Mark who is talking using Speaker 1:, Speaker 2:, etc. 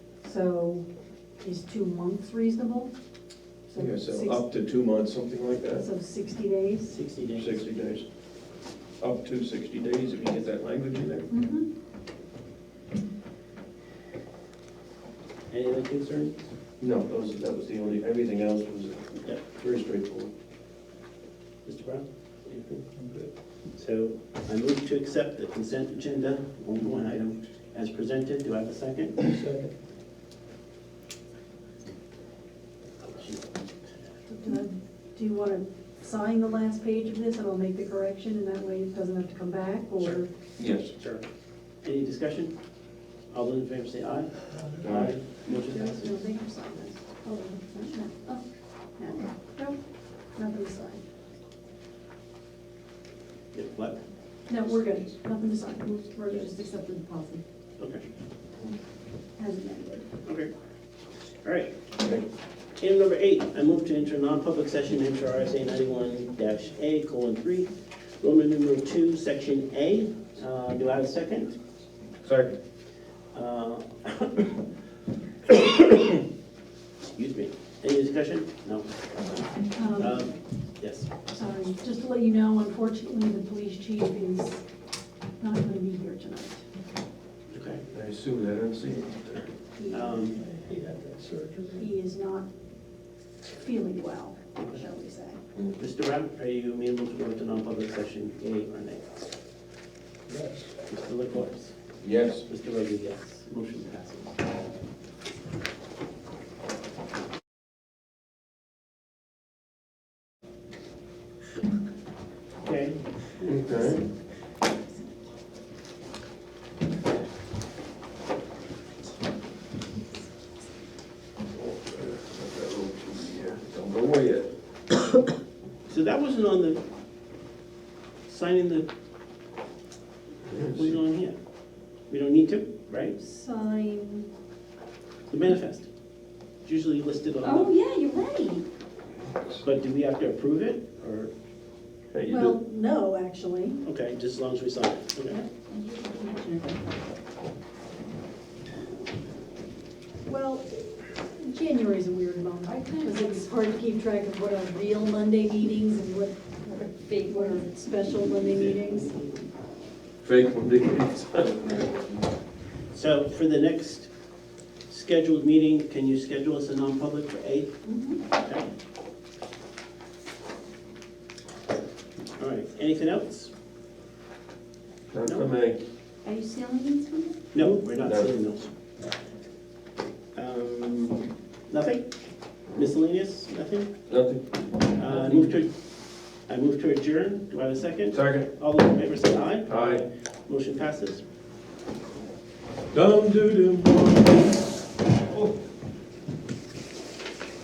Speaker 1: So is two months reasonable?
Speaker 2: Yeah, so
Speaker 1: six-
Speaker 2: up to two months, something like that,
Speaker 1: So sixty days?
Speaker 3: Sixty days.
Speaker 2: sixty days. Up to sixty days, if you get that language in there.
Speaker 1: Mhm.
Speaker 3: Any other concerns?
Speaker 2: No, those, that was the only, everything else was
Speaker 3: Yeah.
Speaker 2: very straightforward.
Speaker 3: Mr. Brown? Anything? So I move to accept the consent agenda, only one item, as presented. Do I have a second?
Speaker 1: Do I- do you want to sign the last page of this and I'll make the correction and that way it doesn't have to come back or?
Speaker 3: Sure.
Speaker 2: Yes.
Speaker 3: Sure. Any discussion? All those in favor say aye.
Speaker 2: Aye.
Speaker 3: Motion
Speaker 1: No,
Speaker 3: passes.
Speaker 1: no, they have signed this. Oh, no, no, oh, no, no, nothing to sign.
Speaker 3: Yeah, What?
Speaker 1: No, we're good, nothing to sign, We're- we're just accepting the policy
Speaker 3: Okay,
Speaker 1: as amended.
Speaker 3: okay. All right.
Speaker 2: Okay.
Speaker 3: Item number eight, I move to enter non-public session, enter RSA ninety-one dash A colon three, Roman numeral two, section A. Uh, do I have a second?
Speaker 2: Second.
Speaker 3: Uh, Excuse me. Any discussion? No.
Speaker 1: Um,
Speaker 3: Um, Yes.
Speaker 1: Sorry, just to let you know, unfortunately, the police chief is not going to be here tonight.
Speaker 3: Okay.
Speaker 2: I assume that, I didn't see it.
Speaker 1: He-
Speaker 3: Um,
Speaker 1: He is not feeling well, shall we say.
Speaker 3: Mr. Brown, are you amenable to go into non-public session, yea or nay? Mr. LaCourse?
Speaker 2: Yes.
Speaker 3: Mr. Rodriguez? Motion passes. Okay.
Speaker 2: Okay. Don't go away yet.
Speaker 3: So that wasn't on the, signing the, what's on here? We don't need to, right?
Speaker 1: Sign,
Speaker 3: The manifest. It's usually listed
Speaker 1: oh,
Speaker 3: on
Speaker 1: yeah, you're right.
Speaker 3: the, but do we have to approve it, or,
Speaker 2: Hey, you
Speaker 1: Well,
Speaker 2: do-
Speaker 1: no, actually.
Speaker 3: okay, just as long as we sign it, okay?
Speaker 1: Well, January's a weird month, because it's hard to keep track of what are real Monday meetings and what, what are fake, what are special Monday meetings.
Speaker 2: Fake from Dick.
Speaker 3: So for the next scheduled meeting, can you schedule us a non-public for eight?
Speaker 1: Mhm.
Speaker 3: Okay. All right, anything else?
Speaker 2: Not for me.
Speaker 1: Are you selling these from it?
Speaker 3: No, we're not
Speaker 2: No.
Speaker 3: seeing those. Um, nothing? Miscellaneous, nothing?
Speaker 2: Nothing.
Speaker 3: Uh, I move to, I move to adjourn, do I have a second?
Speaker 2: Second.
Speaker 3: All those in favor say aye.
Speaker 2: Aye.
Speaker 3: Motion passes.
Speaker 2: Dum doo dum.